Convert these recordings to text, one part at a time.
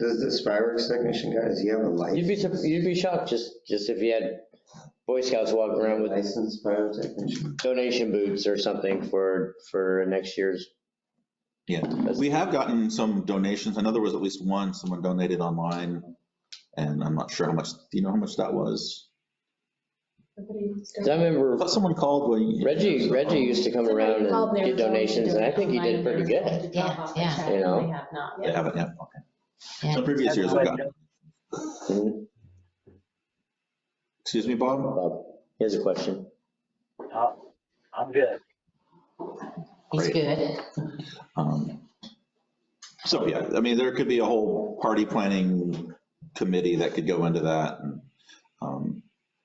Does this fireworks technician guy, does he have a You'd license? be, sup- you'd be shocked, just, just if you had Boy Scouts walking around with Licensed pyrotechnician? donation boots or something for, for next year's. Yeah, we have gotten some donations. I know there was at least one, someone donated online. And I'm not sure how much, do you know how much that was? Cause I I remember thought someone called when. Reggie, Reggie used to come around and get donations, and I think he did pretty good. Yeah, yeah. You know. They have not. They haven't yet, okay. Yeah. So previous years we've got, Mhm. excuse me, Bob? Bob, he has a question. I'm good. He's good. Um, So, yeah, I mean, there could be a whole party planning committee that could go into that. and, um,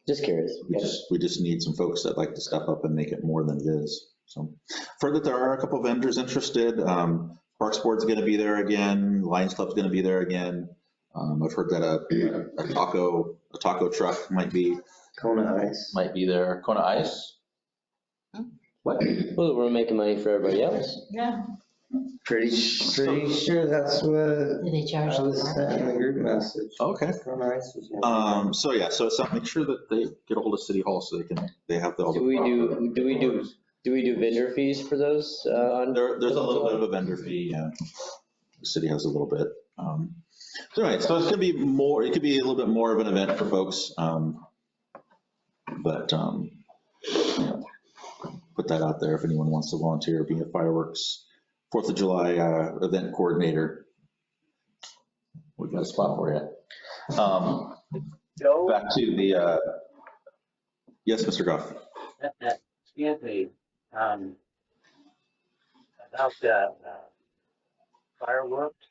Just curious. We just, we just need some folks that like to step up and make it more than it is. So further, there are a couple vendors interested. Um, Parks Board's going to be there again. Lions Club's going to be there again. Um, I've heard that a a taco, a taco truck might be, Kona Ice. might be there. Kona Ice? What? Well, we're making money for everybody else. Yeah. Pretty, sh- pretty sure that's what Do they I charge? was uh, sent in the group message. Okay. Kona Ice was. one. Uh, Um, so yeah, so it's, something- make sure that they get a hold of City Hall so they can, they have the. all the Do we do, do we do, do we do vendor fees for those, uh, on? There, there's a little bit of a vendor fee, yeah. The city has a little bit. Um, So anyway, so it's gonna be more, it could be a little bit more of an event for folks. um, But, um, you know, put that out there if anyone wants to volunteer, be a fireworks, Fourth of July uh, event coordinator. We've got a spot for you. Um, Joe, Back to the, uh, yes, Mr. Goff. that- that- excuse me, um, about the uh, fireworks,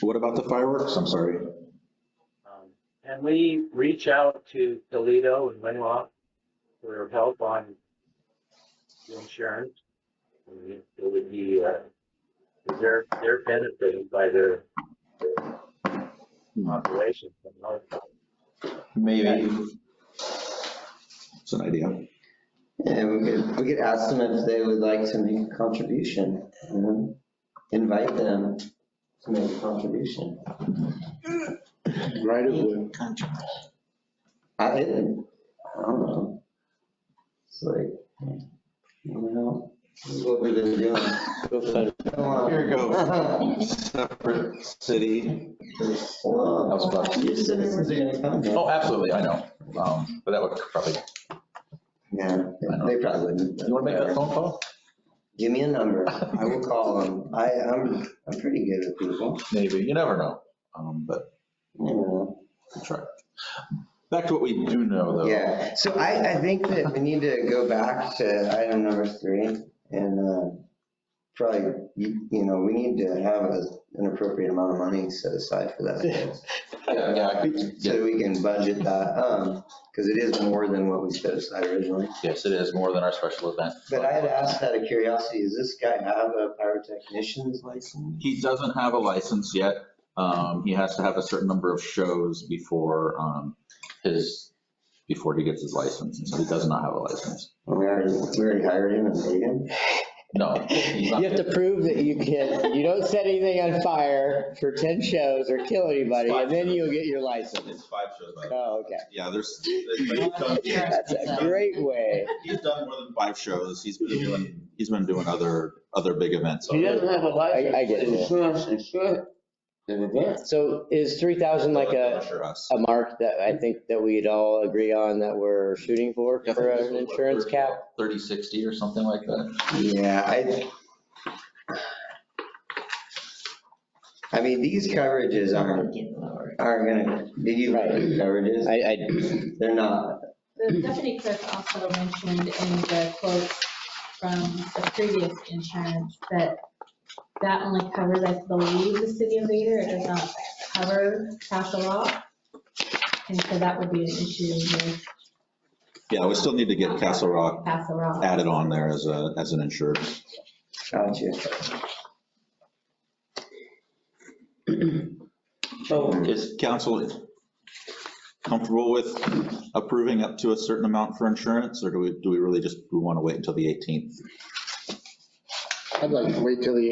What about the fireworks? I'm sorry. um, can we reach out to Toledo and Winlock for help on the insurance? I mean, It would be, uh, they're, they're benefited by their operations. Maybe. It's an idea. Yeah, we could, we could ask them if they would like to make a contribution, you know? invite them to make a contribution. Right of way. I, I don't know. It's like, you know, this is what we've been doing. GoFundMe. Come on. Here you go. Separate city. Well, was about Your citizens are gonna come. man. Oh, absolutely, I know. Um, But that would probably, you Yeah, I they probably wouldn't. want to make that phone call? Give me a number. I will call them. I, I'm, I'm pretty good with people. Maybe, you never know. Um, But you know. we'll try. Back to what we do know, though. Yeah, so I, I think that we need to go back to item number three and uh, probably, you you know, we need to have a- an appropriate amount of money set aside for that. Yeah, yeah, I think- yeah, So we can budget that, because it is more than what we set aside originally. Yes, it is more than our special event. But I had asked out of curiosity, does this guy have a pyrotechnician's license? He doesn't have a license yet. Um, He has to have a certain number of shows before um, his, before he gets his license. And so he does not have a license. And We already, we already hired him and paid him. No. he's You not- have to prove that you can, you don't set anything on fire for 10 shows or kill anybody, and then you'll get your license. It's five shows, by the way. Oh, okay. Yeah, there's, he's done- That's a great way. he's done more than five shows. He's been doing, he's been doing other, other big events. He doesn't have a license. I- I get it. Insurance, insurance, an event. So is 3,000 like a, Pressure us. a mark that I think that we'd all agree on that we're shooting for, for an insurance cap? Thirty, sixty or something like that. Yeah, I. I mean, these coverages aren't Get lower. aren't gonna, did you write the coverages? I, I, They're not. The deputy clerk also mentioned in the quote from the previous insurance that that only covers, I believe, the city of Vader, it does not cover Castle Rock. And so that would be an issue with Yeah, we still need to get Castle Rock Castle Rock. added on there as a, as an insurance. Gotcha. Oh, Is council comfortable with approving up to a certain amount for insurance? Or do we, do we really just, we want to wait until the eighteenth? I'd like to wait till the